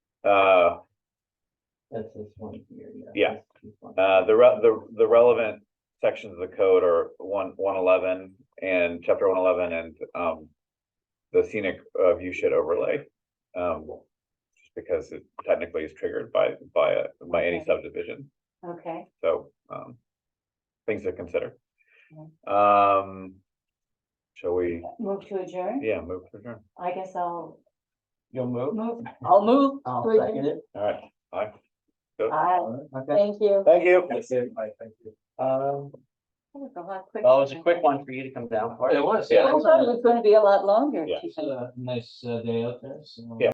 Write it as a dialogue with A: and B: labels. A: Uh,
B: That's this one here,
A: Yeah.
B: yeah. that's this one.
A: uh, the re- the, the relevant sections of the code are one, one eleven and chapter one eleven and, um. The scenic, uh, view shed overlay, um, just because it technically is triggered by, by, a- by any
C: Okay.
A: subdivision.
C: Okay,
A: So, um, things to consider.
C: Yeah.
A: Um, shall we,
C: move to adjourn.
A: yeah, move to adjourn?
C: I guess I'll
B: You'll move?
C: move. I'll move.
B: I'll
C: to adjourn.
B: second it.
A: All right, bye.
C: Aye,
B: Okay.
C: thank you.
A: Thank you.
B: Thank you, Mike, thank you. Um,
C: That was a lot quicker
B: well, it was a
C: than I
B: quick
C: thought.
B: one for you to come down for.
D: It was,
C: I
D: yeah.
C: thought it was gonna be a lot longer.
A: Yeah.
C: Keith.
D: It's a nice uh, day out there, so.
A: Yeah.